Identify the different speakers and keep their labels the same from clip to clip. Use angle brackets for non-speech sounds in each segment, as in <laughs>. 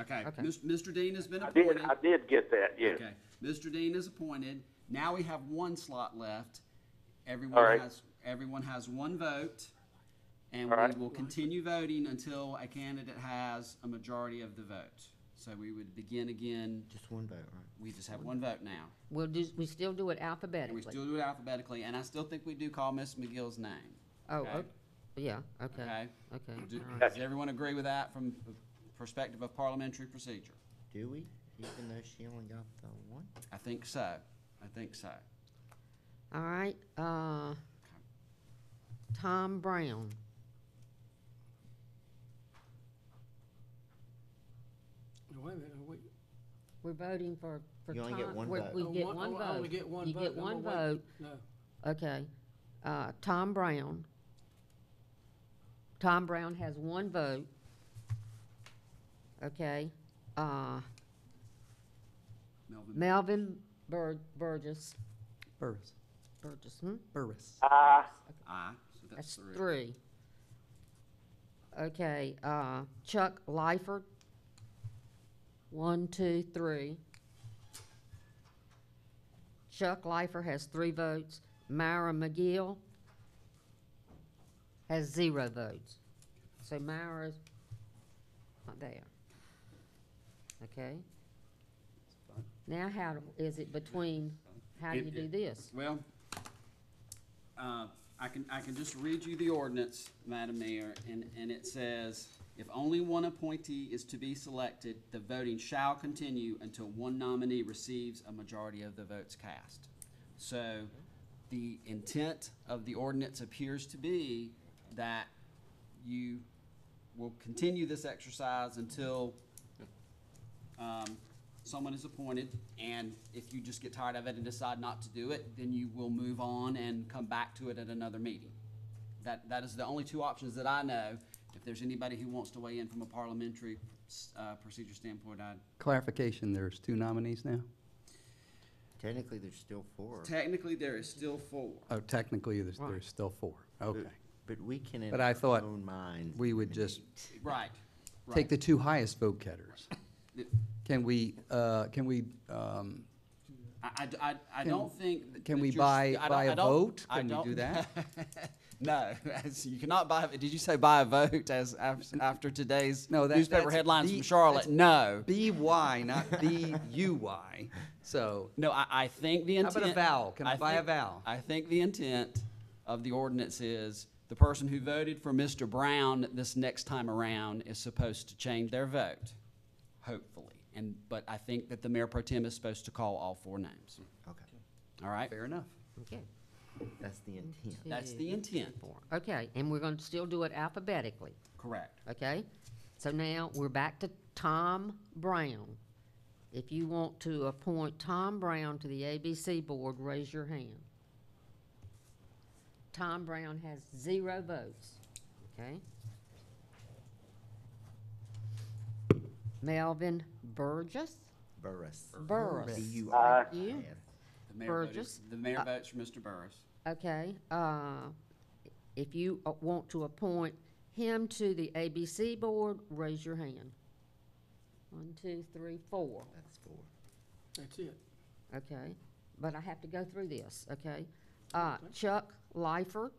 Speaker 1: Okay,
Speaker 2: Okay.
Speaker 1: Mis- Mr. Dean has been
Speaker 3: I did,
Speaker 1: appointed.
Speaker 3: I did get that, yes.
Speaker 1: Okay, Mr. Dean is appointed. Now we have one slot left.
Speaker 3: All
Speaker 1: Everyone
Speaker 3: right.
Speaker 1: has, everyone has one vote. And
Speaker 3: All
Speaker 1: we
Speaker 3: right.
Speaker 1: will continue voting until a candidate has a majority of the vote. So we would begin again,
Speaker 2: Just one vote, right?
Speaker 1: we just have one vote now.
Speaker 4: We'll do, we still do it
Speaker 1: And we
Speaker 4: alphabetically.
Speaker 1: still do it alphabetically, and I still think we do call Miss McGill's name.
Speaker 4: Oh,
Speaker 1: okay.
Speaker 4: o- yeah,
Speaker 1: Okay.
Speaker 4: okay, okay.
Speaker 1: Do-
Speaker 4: all right.
Speaker 1: Does everyone agree with that from the perspective of parliamentary procedure?
Speaker 2: Do we? Even though she only got the one?
Speaker 1: I think so. I think so.
Speaker 4: All right, uh, Tom Brown.
Speaker 5: Wait a minute, wait.
Speaker 4: We're voting for, for
Speaker 2: You
Speaker 4: Tom.
Speaker 2: only get one
Speaker 4: we're-
Speaker 2: vote.
Speaker 4: We
Speaker 5: Oh,
Speaker 4: get
Speaker 5: one-
Speaker 4: one
Speaker 5: oh, I
Speaker 4: vote.
Speaker 5: only get one
Speaker 4: You
Speaker 5: vote.
Speaker 4: get
Speaker 5: I'm
Speaker 4: one
Speaker 5: gonna
Speaker 4: vote,
Speaker 5: wait. No,
Speaker 4: okay. Uh, Tom Brown. Tom Brown has one vote. Okay, uh,
Speaker 1: Melvin?
Speaker 4: Melvin Bur- Burgess,
Speaker 6: Burris,
Speaker 4: Burgess, hmm?
Speaker 6: Burris.
Speaker 3: Aye,
Speaker 1: Aye. So
Speaker 4: That's three. Okay, uh, Chuck Lyford. One, two, three. Chuck Lyford has three votes. Myra McGill has zero votes. So Myra's not there. Okay? Now how do- is it between, how do
Speaker 1: It-
Speaker 4: you do
Speaker 1: it-
Speaker 4: this?
Speaker 1: Well, uh, I can, I can just read you the ordinance, Madam Mayor, and, and it says, if only one appointee is to be selected, the voting shall continue until one nominee receives a majority of the votes cast. So the intent of the ordinance appears to be that you will continue this exercise until um, someone is appointed, and if you just get tired of it and decide not to do it, then you will move on and come back to it at another meeting. That, that is the only two options that I know. If there's anybody who wants to weigh in from a parliamentary, uh, procedure standpoint, I,
Speaker 6: Clarification, there's two nominees now?
Speaker 2: Technically, there's still four.
Speaker 1: technically, there is still four.
Speaker 6: Oh, technically, there's,
Speaker 4: Right.
Speaker 6: there's still four. Okay.
Speaker 2: But we can in
Speaker 6: But I
Speaker 2: our
Speaker 6: thought
Speaker 2: own minds.
Speaker 6: We would just
Speaker 1: Right,
Speaker 6: take
Speaker 1: right.
Speaker 6: the two highest vote getters.
Speaker 1: The-
Speaker 6: Can we, uh, can we, um,
Speaker 1: I, I- I- I don't think. that-
Speaker 6: can
Speaker 1: that
Speaker 6: we
Speaker 1: you're
Speaker 6: buy-
Speaker 1: st- I don't-
Speaker 6: buy a
Speaker 1: I don't-
Speaker 6: vote?
Speaker 1: I
Speaker 6: Can we do
Speaker 1: don't-
Speaker 6: that?
Speaker 1: <laughs> No, as you cannot buy, did you say buy a vote as, af- after today's
Speaker 6: No, that-
Speaker 1: newspaper
Speaker 6: that's
Speaker 1: headlines
Speaker 6: the-
Speaker 1: from Charlotte?
Speaker 6: that's-
Speaker 1: No.
Speaker 6: B-Y, not <laughs> B-U-Y? So,
Speaker 1: No, I, I think the
Speaker 6: How
Speaker 1: intent.
Speaker 6: about a vowel? Can I buy a
Speaker 1: think-
Speaker 6: vowel?
Speaker 1: I think the intent of the ordinance is the person who voted for Mr. Brown this next time around is supposed to change their vote, hopefully. And, but I think that the mayor pro tem is supposed to call all four names,
Speaker 2: Okay,
Speaker 1: all right?
Speaker 6: fair enough.
Speaker 4: Okay.
Speaker 2: that's the intent.
Speaker 1: That's the intent,
Speaker 4: four. Okay, and we're gonna still do it alphabetically,
Speaker 1: correct.
Speaker 4: okay? So now, we're back to Tom Brown. If you want to appoint Tom Brown to the ABC Board, raise your hand. Tom Brown has zero votes, okay? Melvin Burgess?
Speaker 2: Burris.
Speaker 4: Burris.
Speaker 2: B-U-R.
Speaker 4: You?
Speaker 2: S.
Speaker 1: The mayor voted,
Speaker 4: Burgess?
Speaker 1: the mayor votes for Mr. Burris.
Speaker 4: Okay, uh, if you uh, want to appoint him to the ABC board, raise your hand. One, two, three, four,
Speaker 2: That's four.
Speaker 5: that's it.
Speaker 4: okay? But I have to go through this, okay? Uh, Chuck Lifer,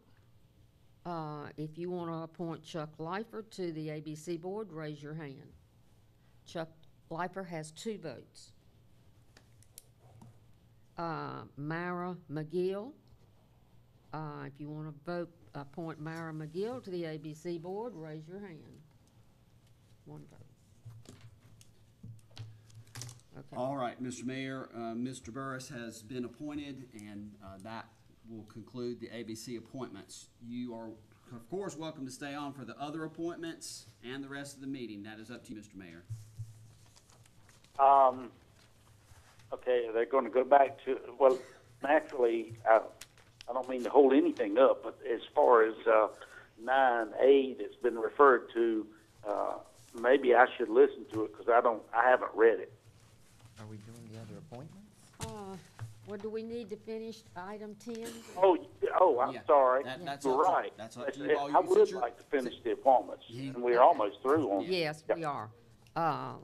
Speaker 4: uh, if you want to appoint Chuck Lifer to the ABC board, raise your hand. Chuck Lifer has two votes. Uh, Myra McGill. Uh, if you want to vote, appoint Myra McGill to the ABC board, raise your hand. One vote. Okay.
Speaker 1: All right, Mr. Mayor, uh, Mr. Burris has been appointed, and uh, that will conclude the ABC appointments. You are, of course, welcome to stay on for the other appointments and the rest of the meeting. That is up to you, Mr. Mayor.
Speaker 3: um, okay, they're gonna go back to, well, naturally, I, I don't mean to hold anything up, but as far as, uh, nine A that's been referred to, uh, maybe I should listen to it, because I don't, I haven't read it.
Speaker 2: Are we doing the other appointments?
Speaker 4: Uh, Well, do we need to finish item ten?
Speaker 3: Oh, you- oh, I'm
Speaker 1: Yeah,
Speaker 3: sorry.
Speaker 1: that- that's
Speaker 3: You're
Speaker 1: up to-
Speaker 3: right.
Speaker 1: that's up to you all.
Speaker 3: I
Speaker 1: You-
Speaker 3: would
Speaker 1: since
Speaker 3: like to finish the appointments, and we're
Speaker 4: Okay.
Speaker 3: almost through on.
Speaker 4: Yes, we are. Uh,